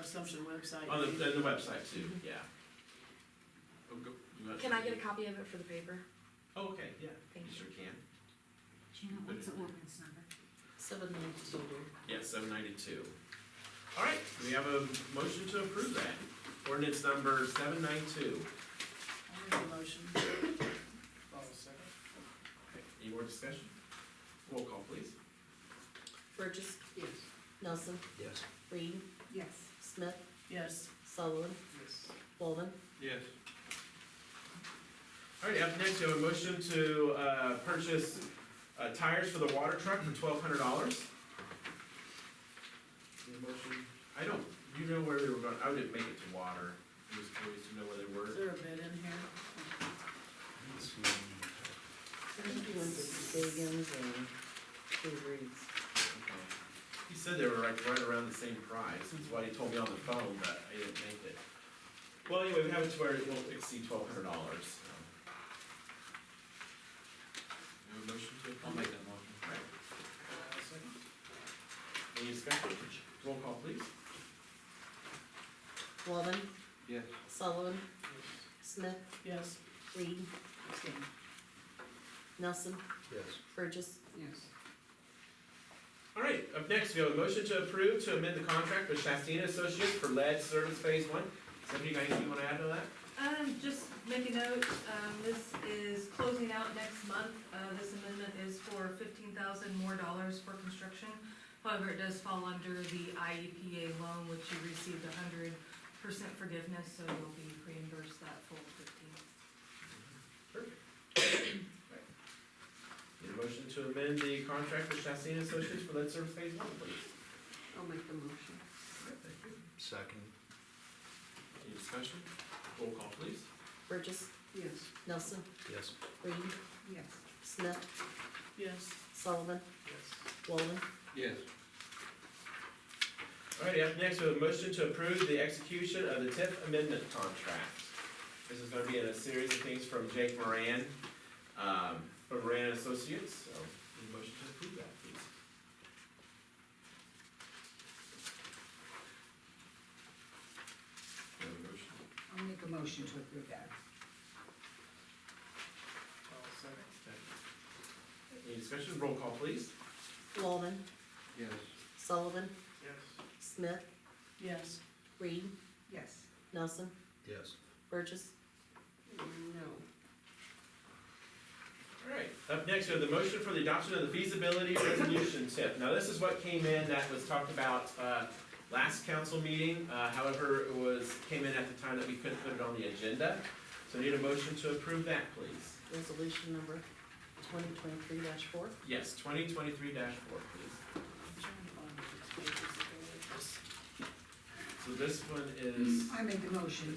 Assumption website. On the, the the website too, yeah. Oh, go- you want- Can I get a copy of it for the paper? Oh, okay, yeah, you Thank you. sure can. Gina, what's the ordinance number? Seven ninety-two. Yeah, seven ninety-two. All right, we have a motion to approve that. Ordinance number seven ninety-two. I'll make a motion. Any more discussion? Roll call, please. Burgess. Yes. Nelson. Yes. Reed. Yes. Smith. Yes. Sullivan. Yes. Walden. Yes. All right, up next, we have a motion to, uh, purchase, uh, tires for the water truck for twelve hundred dollars. Motion, I don't, you know where they were going, I didn't make it to water, I was curious to know where they Is were. there a bid in here? Biggins and Big Reeds. He said they were like right around the same price, that's why he told me on the phone, but I didn't make it. Well, anyway, we have it to where it won't exceed twelve hundred dollars, motion to? I'll make that motion. Alright. Uh, Any discussion? Roll call, please. Walden. Yes. Sullivan. Smith. Yes. Reed. Abstain. Nelson. Yes. Burgess. Yes. All right, up next, we have a motion to approve to amend the contract with Shastina Associates for lead service phase one. Somebody got anything you wanna add to that? Um, just make a note, um, this is closing out next month, uh, this amendment is for fifteen thousand more dollars for construction. However, it does fall under the IEPA loan, which you received a hundred percent forgiveness, so you'll be reimbursed that full fifteen. Need a motion to amend the contract with Shastina Associates for lead service phase one, please. I'll make the motion. All right, thank you. Second. Any discussion? Roll call, please. Burgess. Yes. Nelson. Yes. Reed. Yes. Smith. Yes. Sullivan. Walden. Yes. All right, up next, we have a motion to approve the execution of the TIF amendment contract. This is gonna be in a series of things from Jake Moran, um, from Moran and Associates, so, need a motion to approve that, please. Do you have a motion? I'll make a motion to approve that. Any discussion? Roll call, please. Walden. Yes. Sullivan. Yes. Smith. Yes. Reed. Yes. Nelson. Yes. Burgess. No. All right, up next, we have the motion for the adoption of the feasibility resolution tip. Now, this is what came in that was talked about, uh, last council meeting. Uh, however, it was, came in at the time that we couldn't put it on the agenda. So I need a motion to approve that, please. Resolution number twenty twenty-three four. Yes, twenty twenty-three four, please. I'm trying to find the pages that go with this. So this one is, Mm. I made the motion.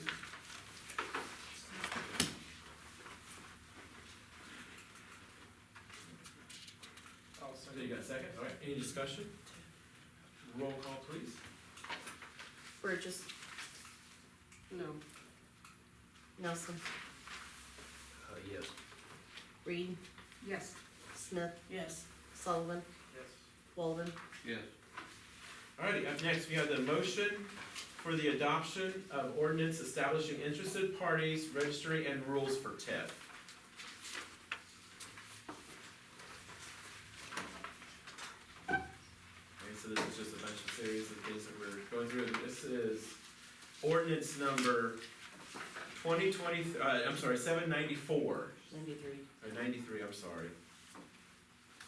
so you got a second? All right, any discussion? Roll call, please. Burgess. No. Nelson. Uh, yes. Reed. Yes. Smith. Yes. Sullivan. Walden. Yes. Alrighty, up next, we have the motion for the adoption of ordinance establishing interested parties, registry, and rules for TIF. Okay, so this is just a bunch of series of things that we're going through, this is ordinance number twenty twenty, uh, I'm sorry, seven ninety-four. Ninety-three. Or ninety-three, I'm sorry.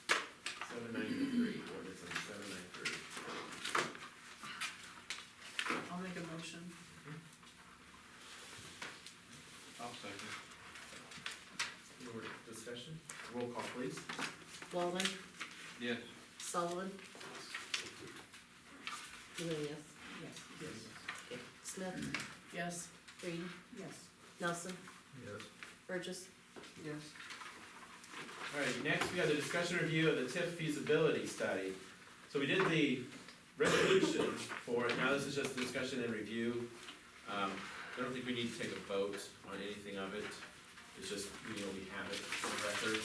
Seven ninety-three, ordinance number seven ninety-three. I'll make a motion. I'll second. Any more discussion? Roll call, please. Walden. Yes. Sullivan. You're a yes. Yes. Yes. Okay. Smith. Yes. Reed. Yes. Nelson. Yes. Burgess. Yes. All right, next we have the discussion review of the TIF feasibility study. So we did the resolution for, it. now this is just discussion and review. Um, I don't think we need to take a vote on anything of it. It's just, you know, we have it for record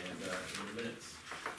and, uh, in the minutes.